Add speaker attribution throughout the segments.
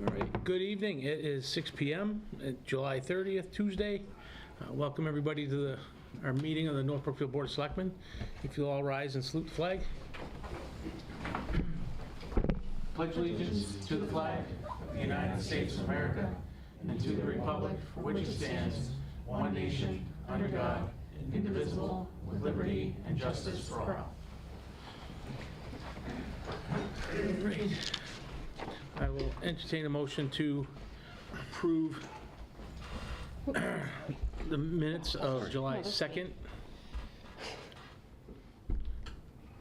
Speaker 1: All right, good evening. It is 6 PM, uh, July 30th, Tuesday. Uh, Welcome, everybody, to the, our meeting of the North Brookfield Board of Selectmen. If you'll all rise and salute the flag. Pledge allegiance to the flag of the United States of America and to the republic for which it stands, one nation, under God, indivisible, with liberty and justice for all. I will entertain a motion to approve the minutes of July 2nd.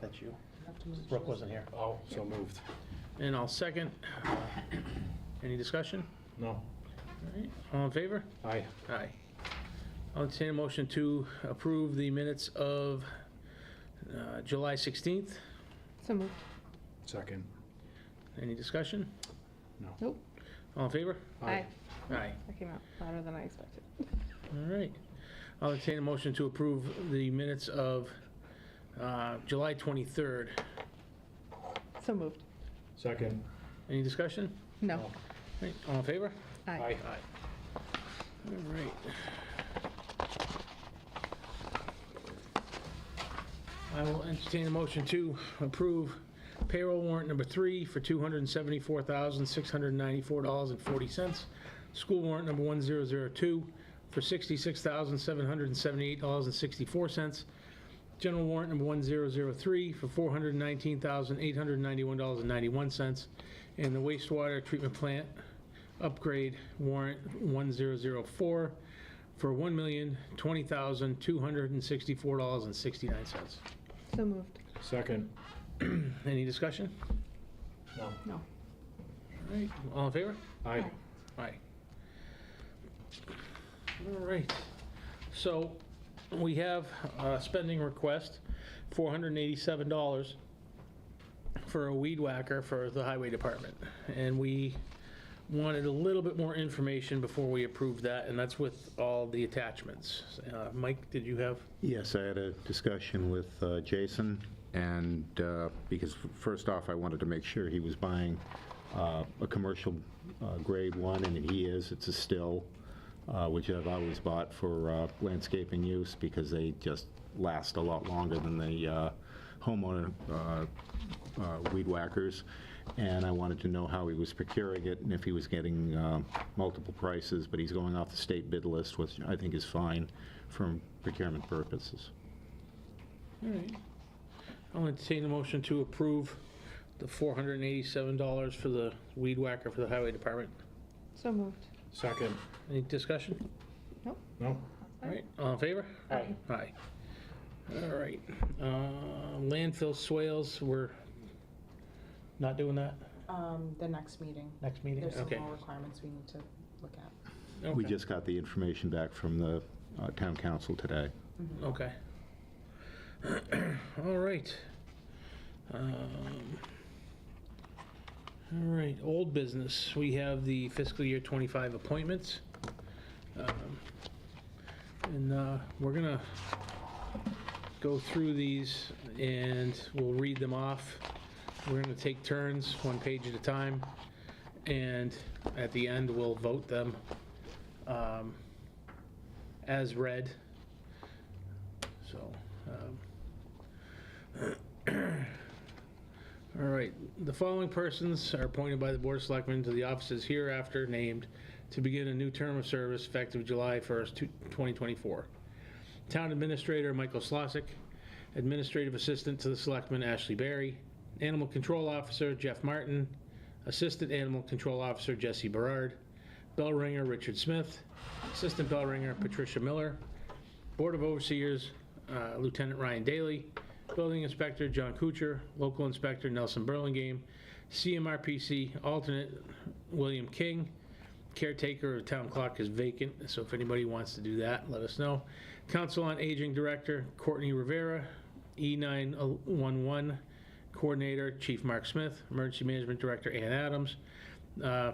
Speaker 2: That's you. Brooke wasn't here.
Speaker 3: Oh, so moved.
Speaker 1: And I'll second. Any discussion?
Speaker 3: No.
Speaker 1: All in favor?
Speaker 3: Aye.
Speaker 1: Aye. I'll entertain a motion to approve the minutes of uh, July 16th.
Speaker 4: So moved.
Speaker 3: Second.
Speaker 1: Any discussion?
Speaker 4: Nope.
Speaker 1: All in favor?
Speaker 4: Aye.
Speaker 1: Aye.
Speaker 4: That came out louder than I expected.
Speaker 1: All right. I'll entertain a motion to approve the minutes of uh, July 23rd.
Speaker 4: So moved.
Speaker 3: Second.
Speaker 1: Any discussion?
Speaker 4: No.
Speaker 1: All right, All in favor?
Speaker 4: Oh. Aye.
Speaker 1: Aye. All right. I will entertain a motion to approve payroll warrant number three for $274,694.40. School warrant number 1002 for $66,778.64. General warrant number 1003 for $419,891.91. And the wastewater treatment plant upgrade warrant 1004 for $1,020,264.69.
Speaker 4: So moved.
Speaker 3: Second.
Speaker 1: Any discussion?
Speaker 3: No.
Speaker 4: No.
Speaker 1: All right, all in favor?
Speaker 3: Aye.
Speaker 1: Aye. All right, so we have a spending request, $487 for a weed whacker for the highway department. And we wanted a little bit more information before we approved that, and that's with all the attachments. Uh, Mike, did you have?
Speaker 5: Yes, I had a discussion with uh, Jason, and, uh, because first off, I wanted to make sure he was buying uh, a commercial uh, grade one, and he is, it's a still, uh, which I've always bought for uh, landscaping use, because they just last a lot longer than the uh, homeowner uh, uh, weed whackers, and I wanted to know how he was procuring it and if he was getting uh, multiple prices, but he's going off the state bid list, which I think is fine from procurement purposes.
Speaker 1: All right. I'll entertain a motion to approve the $487 for the weed whacker for the highway department.
Speaker 4: So moved.
Speaker 3: Second.
Speaker 1: Any discussion?
Speaker 4: Nope.
Speaker 3: No?
Speaker 1: All right, all in favor?
Speaker 3: Aye.
Speaker 1: Aye. All right, uh, landfill swales, we're not doing that
Speaker 6: Um, the next meeting.
Speaker 1: next meeting?
Speaker 6: There's some
Speaker 1: Okay.
Speaker 6: more requirements we need to look at.
Speaker 5: We
Speaker 1: Okay.
Speaker 5: just got the information back from the uh, town council today.
Speaker 1: Okay. All right. Um, All right, old business. We have the fiscal year 25 appointments. Um, And uh, we're gonna go through these and we'll read them off. We're gonna take turns, one page at a time. And at the end, we'll vote them um, as read. So, um, all right, the following persons are appointed by the Board of Selectmen to the offices hereafter named to begin a new term of service effective July 1st, two- 2024. Town Administrator Michael Slosik, Administrative Assistant to the Selectman Ashley Berry, Animal Control Officer Jeff Martin, Assistant Animal Control Officer Jesse Berard, Bell Ringer Richard Smith, Assistant Bell Ringer Patricia Miller, Board of Overseers uh, Lieutenant Ryan Daly, Building Inspector John Kuchar, Local Inspector Nelson Burlingame, CMRPC Alternate William King, Caretaker of Town Clock is vacant, so if anybody wants to do that, let us know. Council on Aging Director Courtney Rivera, E E911 Coordinator Chief Mark Smith, Emergency Management Director Ann Adams, uh,